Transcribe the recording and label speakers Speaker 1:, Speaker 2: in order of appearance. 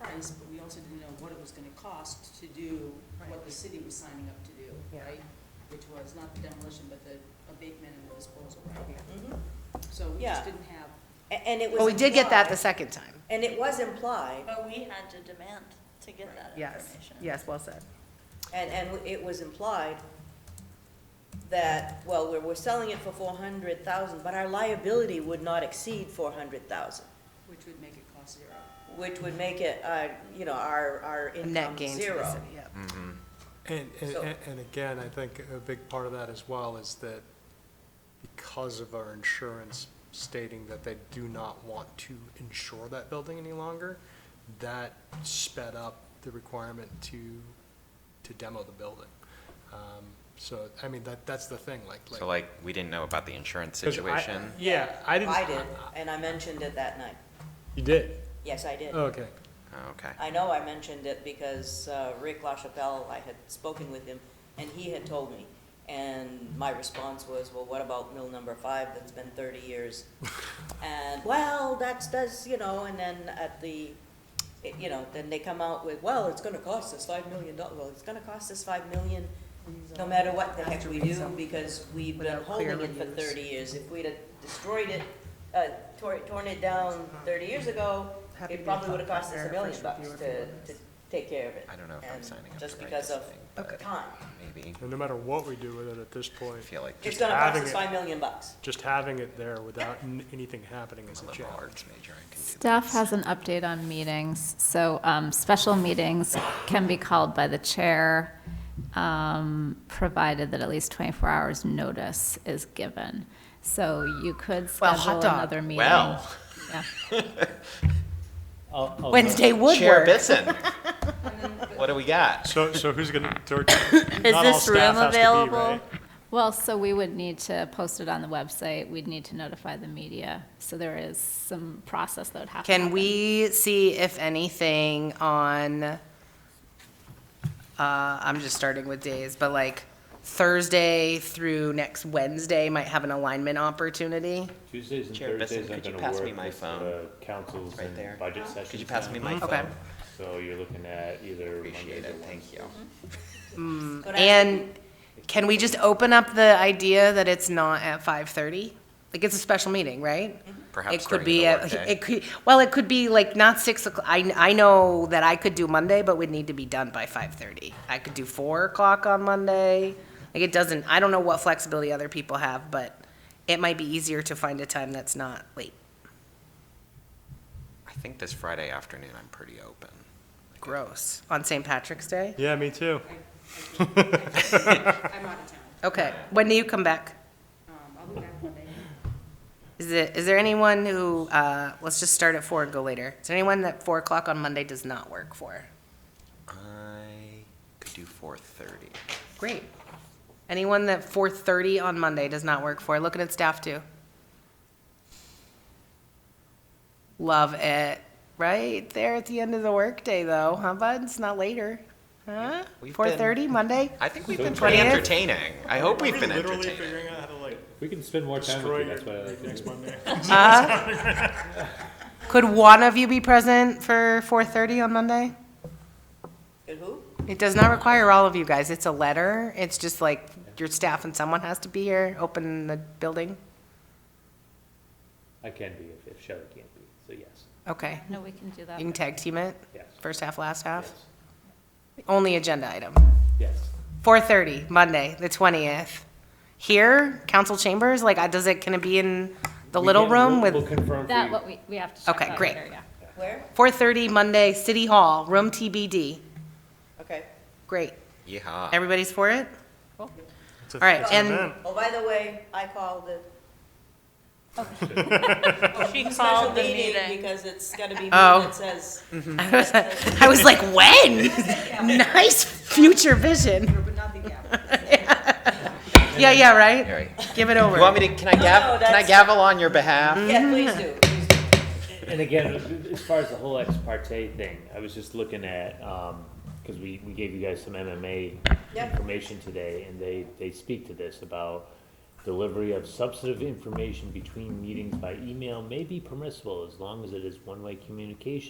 Speaker 1: price, but we also didn't know what it was gonna cost to do what the city was signing up to do,
Speaker 2: Yeah.
Speaker 1: right? Which was not the demolition, but the abatement and the disposal, right?
Speaker 3: Mhm.
Speaker 1: So we
Speaker 3: Yeah.
Speaker 1: just didn't have,
Speaker 3: A- And it was.
Speaker 2: Well, we did get that the
Speaker 3: implied-
Speaker 2: second time.
Speaker 3: And it was implied,
Speaker 4: But we had to demand to get that
Speaker 2: Yes,
Speaker 4: information.
Speaker 2: yes, well said.
Speaker 3: and, and it was implied that, well, we're, we're selling it for four hundred thousand, but our liability would not exceed four hundred thousand,
Speaker 1: which would make it cost zero.
Speaker 3: which would make it, uh, you know, our, our
Speaker 2: A
Speaker 3: income zero.
Speaker 2: Net gain to the city, yep.
Speaker 5: And, and-
Speaker 3: So-
Speaker 5: and, and again, I think a big part of that as well is that because of our insurance stating that they do not want to insure that building any longer, that sped up the requirement to, to demo the building. Um, So, I mean, that, that's the thing, like, like.
Speaker 6: So like, we didn't know about the insurance
Speaker 5: 'cause I-
Speaker 6: situation.
Speaker 5: Yeah, I didn't.
Speaker 3: I did, and I mentioned it that night.
Speaker 5: You did?
Speaker 3: Yes, I did.
Speaker 5: Okay.
Speaker 6: Oh, Okay.
Speaker 3: I know I mentioned it because uh, Rick LaChapelle, I had spoken with him, and he had told me. And my response was, well, what about mill number five that's been thirty years? And, well, that's, that's, you know, and then at the, it- you know, then they come out with, well, it's gonna cost us five million dollars. Well, it's gonna cost us five million, no matter what the heck we do, because we've been
Speaker 2: Without
Speaker 3: holding
Speaker 2: clear
Speaker 3: it for
Speaker 2: reviews.
Speaker 3: thirty years. If we'd have destroyed it, uh, tore, torn it down thirty years ago,
Speaker 2: Happy to be
Speaker 3: it probably
Speaker 2: a
Speaker 3: would have cost us a
Speaker 2: partner,
Speaker 3: million
Speaker 2: first
Speaker 3: bucks
Speaker 2: reviewer,
Speaker 3: to,
Speaker 2: if
Speaker 3: to
Speaker 2: you want
Speaker 3: take care of it.
Speaker 6: I don't know if I'm
Speaker 3: And
Speaker 6: signing up to
Speaker 3: Just
Speaker 6: write
Speaker 3: because
Speaker 6: this
Speaker 3: of
Speaker 6: thing,
Speaker 2: Okay.
Speaker 6: but
Speaker 3: time.
Speaker 6: maybe,
Speaker 5: And no matter what we do with it at this
Speaker 6: I
Speaker 5: point,
Speaker 6: feel like
Speaker 3: It's
Speaker 6: just
Speaker 3: gonna cost
Speaker 5: having
Speaker 3: us
Speaker 5: it-
Speaker 3: five million bucks.
Speaker 5: just having it there without n- anything happening is a
Speaker 6: a liberal
Speaker 5: challenge.
Speaker 6: arts major, I can do
Speaker 7: Staff has an update on meetings. So um, special meetings can be called by the chair, um, provided that at least 24 hours' notice is given. So you could
Speaker 2: Well, hot
Speaker 7: schedule
Speaker 2: dog.
Speaker 7: another meeting.
Speaker 6: Well.
Speaker 7: Yeah.
Speaker 2: Wednesday would
Speaker 6: Chair
Speaker 2: work.
Speaker 6: Bitson, what do we got?
Speaker 5: So, so who's gonna, is
Speaker 4: Is this room available?
Speaker 7: Well, so we would need to post it on the website. We'd need to notify the media. So there is some process that would have to happen.
Speaker 2: Can we see if anything on, uh, I'm just starting with days, but like Thursday through next Wednesday might have an alignment opportunity?
Speaker 8: Tuesdays and
Speaker 6: Chair Bisson,
Speaker 8: Thursdays aren't
Speaker 6: could you
Speaker 8: gonna
Speaker 6: pass me
Speaker 8: work
Speaker 6: my
Speaker 8: with
Speaker 6: phone?
Speaker 8: the councils
Speaker 6: Right there.
Speaker 8: and budget sessions.
Speaker 6: Could you pass me
Speaker 8: now.
Speaker 3: Mm-hmm.
Speaker 6: my
Speaker 2: Okay.
Speaker 6: phone?
Speaker 8: So you're looking at either Mondays
Speaker 6: Appreciate
Speaker 8: or
Speaker 6: it, thank
Speaker 8: Wednesdays.
Speaker 6: you.
Speaker 3: But I-
Speaker 2: And can we just open up the idea that it's not at five thirty? Like, it's a special meeting, right?
Speaker 6: Perhaps
Speaker 2: It could
Speaker 6: during
Speaker 2: be
Speaker 6: the
Speaker 2: at-
Speaker 6: workday.
Speaker 2: It could, well, it could be like not six o'clock. I, I know that I could do Monday, but we'd need to be done by five thirty. I could do four o'clock on Monday. Like, it doesn't, I don't know what flexibility other people have, but it might be easier to find a time that's not late.
Speaker 6: I think this Friday afternoon, I'm pretty open.
Speaker 2: Gross. On St. Patrick's Day?
Speaker 5: Yeah, me too.
Speaker 1: I- I can't- I'm out of town.
Speaker 2: Okay. When do you come back?
Speaker 1: Um, I'll be back Monday.
Speaker 2: Is it, is there anyone who, uh, let's just start at four and go later. Is there anyone that four o'clock on Monday does not work for?
Speaker 6: I could do four thirty.
Speaker 2: Great. Anyone that four thirty on Monday does not work for? Looking at staff too. Love it. Right there at the end of the workday though, huh bud? It's not later. Huh?
Speaker 6: We've
Speaker 2: Four
Speaker 6: been-
Speaker 2: thirty Monday?
Speaker 6: I think we've
Speaker 8: So
Speaker 6: been pretty
Speaker 2: Twentieth?
Speaker 6: entertaining. I hope we've been
Speaker 5: Literally
Speaker 6: entertaining.
Speaker 5: figuring out how to like
Speaker 8: We can spend more time with
Speaker 5: destroy
Speaker 8: you,
Speaker 5: your
Speaker 8: that's what I like to
Speaker 5: next
Speaker 8: do.
Speaker 5: Monday.
Speaker 2: Could one of you be present for four thirty on Monday?
Speaker 3: Good who?
Speaker 2: It does not require all of you guys. It's a letter. It's just like your staff and someone has to be here, open the building.
Speaker 8: I can be if, if Shelley can't be, so yes,
Speaker 2: Okay.
Speaker 7: No, we can do that.
Speaker 2: You can tag team it,
Speaker 8: yes,
Speaker 2: first half, last half.
Speaker 8: yes,
Speaker 2: Only agenda item.
Speaker 8: yes.
Speaker 2: Four thirty, Monday, the twentieth. Here, council chambers, like, I does it, can it be in the
Speaker 8: We
Speaker 2: little
Speaker 8: can-
Speaker 2: room
Speaker 8: we'll-
Speaker 2: with?
Speaker 8: We'll confirm for
Speaker 7: That,
Speaker 8: you.
Speaker 7: what we, we have to check
Speaker 2: Okay,
Speaker 7: out
Speaker 2: great.
Speaker 7: later, yeah.
Speaker 3: Where?
Speaker 2: Four thirty, Monday, City Hall, room TBD.
Speaker 3: Okay.
Speaker 2: Great.
Speaker 6: Yeehaw.
Speaker 2: Everybody's for it?
Speaker 5: It's a-
Speaker 2: All right,
Speaker 5: it's an
Speaker 2: and-
Speaker 5: event.
Speaker 3: Oh, by the way, I called the. Oh,
Speaker 4: She
Speaker 3: special
Speaker 4: called the meeting.
Speaker 3: Because it's gonna be me
Speaker 2: Oh.
Speaker 3: that says,
Speaker 2: I was like, when? Nice future vision.
Speaker 1: There would not be gavel.
Speaker 2: Yeah, yeah,
Speaker 6: All
Speaker 2: right?
Speaker 6: right.
Speaker 2: Give it over.
Speaker 6: You want me to, can I
Speaker 3: no,
Speaker 6: gav, can I
Speaker 3: that's-
Speaker 6: gavel on your behalf?
Speaker 3: yeah, please do, please do.
Speaker 8: And again, as far as the whole ex parte thing, I was just looking at, um 'cause cause we, we gave you guys some MMA
Speaker 3: Yep.
Speaker 8: information today, and they, they speak to this about delivery of substantive information between meetings by email may be permissible as long as it is one-way communication.